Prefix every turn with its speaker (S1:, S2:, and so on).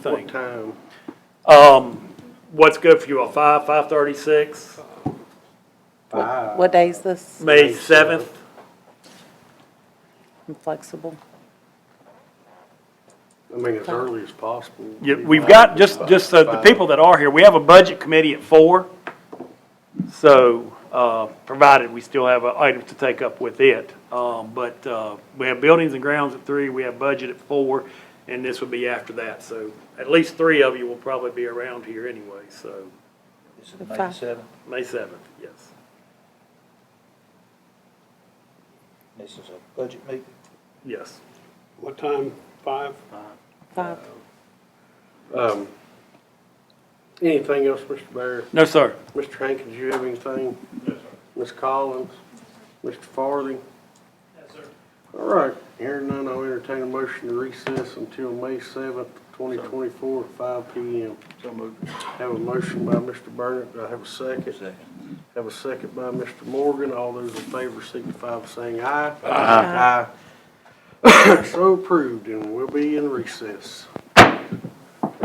S1: What
S2: thing.
S1: time?
S2: Um, what's good for you, all? five, five thirty-six,
S1: Five.
S3: What day is this?
S2: May seventh?
S3: I'm flexible.
S1: I mean, as early as possible.
S2: Yeah, we've got, just, just so the people that are here, we have a budget committee at four. So, uh, provided we still have uh, items to take up with it. Um, but, uh, we have buildings and grounds at three, we have budget at four, and this would be after that. So at least three of you will probably be around here anyway, so
S4: Is it May
S3: Five.
S4: seventh?
S2: May seventh, yes.
S4: This is a budget meeting.
S2: Yes.
S1: What time? Five?
S3: Five.
S1: Um, anything else, Mr. Barrett?
S2: No, sir.
S1: Mr. Hankin, did you have anything? Yes, sir. Ms. Collins? Mr. Farthing? Yes, sir. All right, hearing none, I'll entertain a motion to recess until May seventh, twenty twenty-four, at five P M.
S4: So moved.
S1: Have a motion by Mr. Burnett, do I have a second?
S4: Second.
S1: Have a second by Mr. Morgan, all those in favor signify by saying aye. Aye. So approved, and we'll be in recess.